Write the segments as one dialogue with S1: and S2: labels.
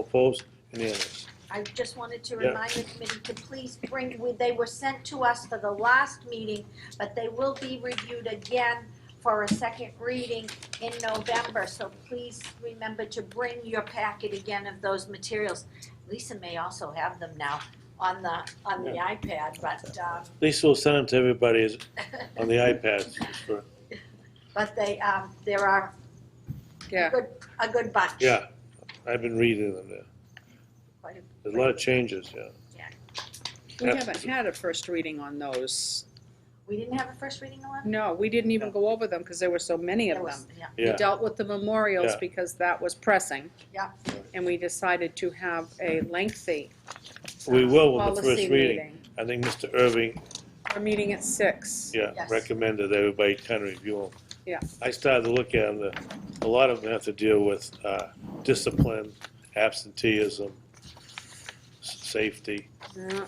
S1: Opposed? Unanimous.
S2: I just wanted to
S1: Yeah.
S2: remind the committee to please bring, we- they were sent to us for the last meeting, but they will be reviewed again for a second reading in November, so please remember to bring your packet again of those materials. Lisa may also have them now on the, on the iPad, but, um,
S1: At least we'll send them to everybody as- on the iPads. just for-
S2: but they, um, there are a
S3: Yeah.
S2: good, a good bunch.
S1: Yeah, I've been reading them there.
S2: Quite a-
S1: There's a lot of changes, yeah.
S3: We haven't had a first reading on those.
S2: We didn't have a first reading on?
S3: No, we didn't even go over them because there were so many of
S2: There
S3: them.
S2: was- Yeah,
S3: We
S1: Yeah,
S3: dealt with the memorials
S1: Yeah.
S3: because that was pressing.
S2: Yeah.
S3: And we decided to have a lengthy
S1: we will with the
S3: policy
S1: first reading.
S3: meeting.
S1: I think Mr. Irving,
S3: Our meeting at six.
S1: yeah,
S2: Yes.
S1: recommended everybody kind of review them.
S3: Yeah.
S1: I started to look at them, a lot of them have to deal with uh, discipline, absenteeism, s- safety.
S3: Yeah.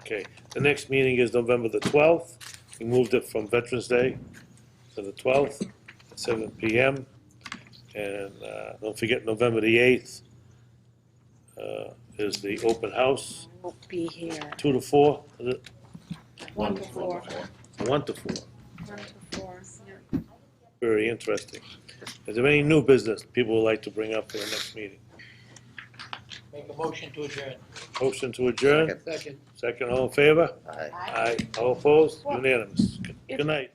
S1: Okay, the next meeting is November the twelfth. We moved it from Veterans Day to the twelfth, seven PM. And uh, don't forget, November the eighth uh, is the open house,
S3: Won't be here.
S1: two to four, is it?
S3: One to four.
S1: one to four.
S3: One to four. yeah.
S1: Very interesting. Is there any new business people would like to bring up for the next meeting?
S4: Make a motion to adjourn.
S1: Motion to adjourn,
S4: Second.
S1: second all in favor?
S4: Aye.
S2: I-
S1: Aye, all opposed, unanimous. Good night.